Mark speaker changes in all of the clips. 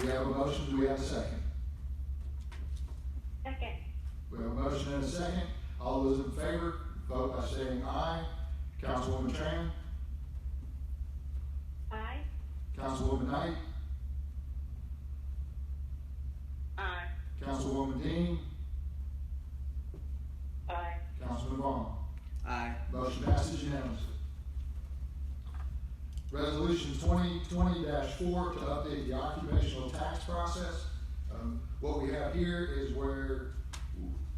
Speaker 1: We have a motion, do we have a second?
Speaker 2: Second.
Speaker 1: We have a motion and a second. All those in favor, vote by saying aye. Councilwoman Tran,
Speaker 2: Aye.
Speaker 1: Councilwoman Knight,
Speaker 2: Aye.
Speaker 1: Councilwoman Dean,
Speaker 2: Aye.
Speaker 1: Councilman Vaughn.
Speaker 3: Aye.
Speaker 1: Motion passes unanimously. Resolution twenty twenty four to update the occupational tax process. Um, what we have here is where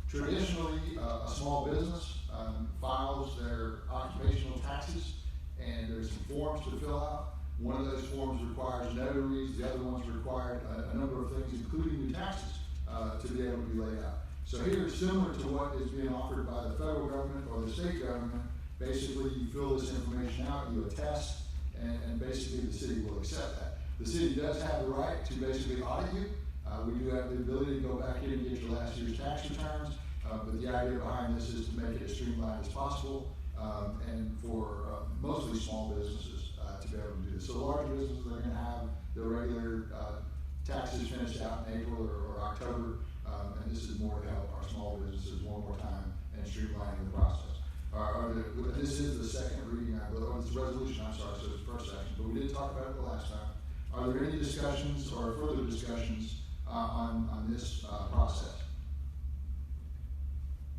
Speaker 1: traditionally, uh, a small business, um, files their occupational taxes, and there's some forms to fill out. One of those forms requires notaries, the other ones require uh, a, a number of things, including new taxes, uh, to be able to be laid out. So here, similar to what is being offered by the federal government or the state government, basically you fill this information out, you attest, and, and basically the city will accept that. The city does have the right to basically audit you, uh, we do have the ability to go back in and get your last year's tax returns, uh, but the idea behind this is to make it as streamlined as possible, um, and for uh, mostly small businesses, uh, to be able to do this. So large businesses, they're gonna have their regular, uh, taxes finished out in April or, or October, um, and this is more to help our small businesses one more time and streamlining the process. Our, our, this is the second reading, I believe, oh, it's a resolution, I'm sorry, so it's the first action, but we did talk about it the last time. Are there any discussions or further discussions, uh, on, on this, uh, process?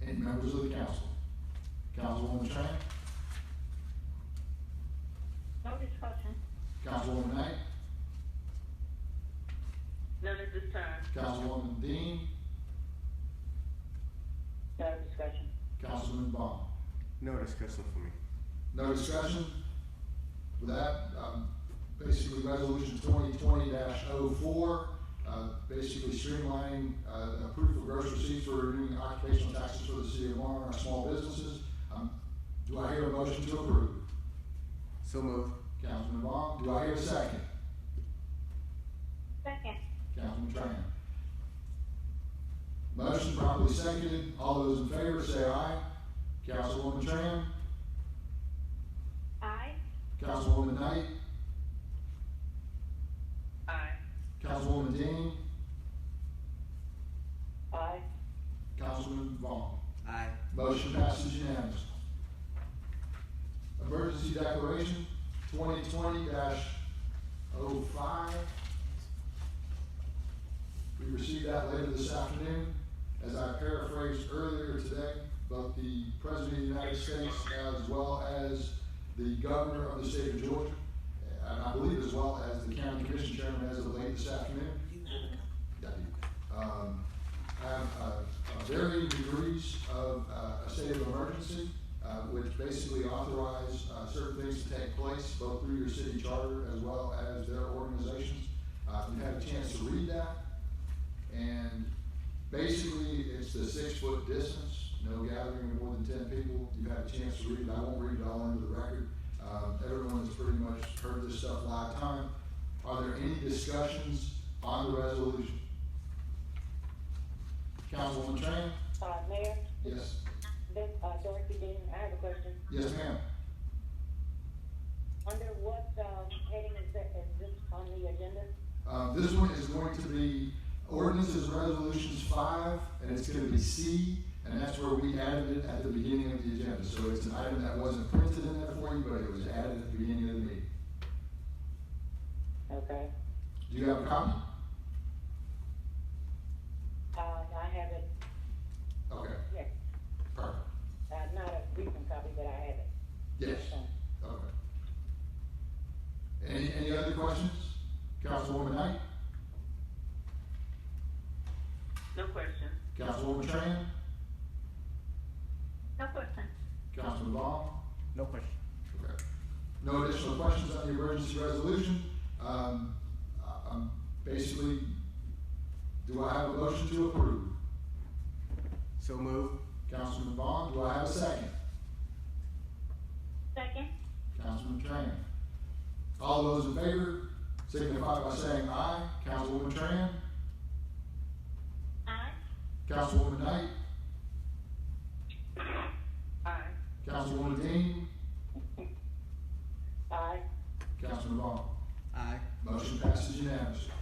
Speaker 1: Any members of the council? Councilwoman Tran,
Speaker 2: No discussion.
Speaker 1: Councilwoman Knight,
Speaker 2: None at this time.
Speaker 1: Councilwoman Dean,
Speaker 2: No discussion.
Speaker 1: Councilman Bond.
Speaker 3: No discussion for me.
Speaker 1: No discussion? With that, um, basically resolution twenty twenty 4 uh, basically streamlining, uh, approval of gross receipts for renewing occupational taxes for the city of Marlin, our small businesses. Um, do I hear a motion to approve?
Speaker 3: So move.
Speaker 1: Councilman Vaughn, do I hear a second?
Speaker 2: Second.
Speaker 1: Councilman Tran. Motion properly seconded, all those in favor say aye. Councilwoman Tran,
Speaker 2: Aye.
Speaker 1: Councilwoman Knight,
Speaker 2: Aye.
Speaker 1: Councilwoman Dean,
Speaker 2: Aye.
Speaker 1: Councilman Vaughn.
Speaker 3: Aye.
Speaker 1: Motion passes unanimously. Emergency declaration, twenty twenty oh 5 We received that later this afternoon. As I paraphrased earlier today, both the President of the United States as well as the Governor of the State of Georgia, and I believe as well as the County Commission Chairman as of late this afternoon, yeah, I do. um, have uh, uh, varying degrees of uh, a state of emergency, uh, which basically authorize uh, certain things to take place, both through your city charter as well as their organizations. Uh, You had a chance to read that, and basically, it's the six-foot distance, no gathering of more than ten people. You had a chance to read it, I won't read it all into the record. Um, Everyone has pretty much heard this stuff live time. Are there any discussions on the resolution? Councilwoman Tran?
Speaker 4: Uh, Mayor,
Speaker 1: Yes.
Speaker 4: this, uh, Dorothy Dean, I have a question.
Speaker 1: Yes, ma'am.
Speaker 4: Under what, um, heading is that, is this on the agenda?
Speaker 1: Uh, this one is going to be ordinances, and resolutions five, and it's gonna be C, and that's where we added it at the beginning of the agenda. So it's an item that wasn't printed in there for you, but it was added at the beginning of the meeting.
Speaker 4: Okay.
Speaker 1: Do you have a copy?
Speaker 4: Uh, I have it,
Speaker 1: Okay,
Speaker 4: yes,
Speaker 1: perfect.
Speaker 4: uh, not a recent copy, but I have it.
Speaker 1: Yes,
Speaker 4: Um,
Speaker 1: okay. Any, any other questions? Councilwoman Knight?
Speaker 2: No question.
Speaker 1: Councilwoman Tran?
Speaker 2: No question.
Speaker 1: Councilman Vaughn?
Speaker 3: No question.
Speaker 1: Okay. No additional questions on the emergency resolution. Um, I- I'm basically, do I have a motion to approve?
Speaker 3: So move.
Speaker 1: Councilman Vaughn, do I have a second?
Speaker 2: Second.
Speaker 1: Councilman Tran. All those in favor signify by saying aye. Councilwoman Tran,
Speaker 2: Aye.
Speaker 1: Councilwoman Knight,
Speaker 2: Aye.
Speaker 1: Councilwoman Dean,
Speaker 4: Aye.
Speaker 1: Councilman Vaughn.
Speaker 3: Aye.
Speaker 1: Motion passes unanimously.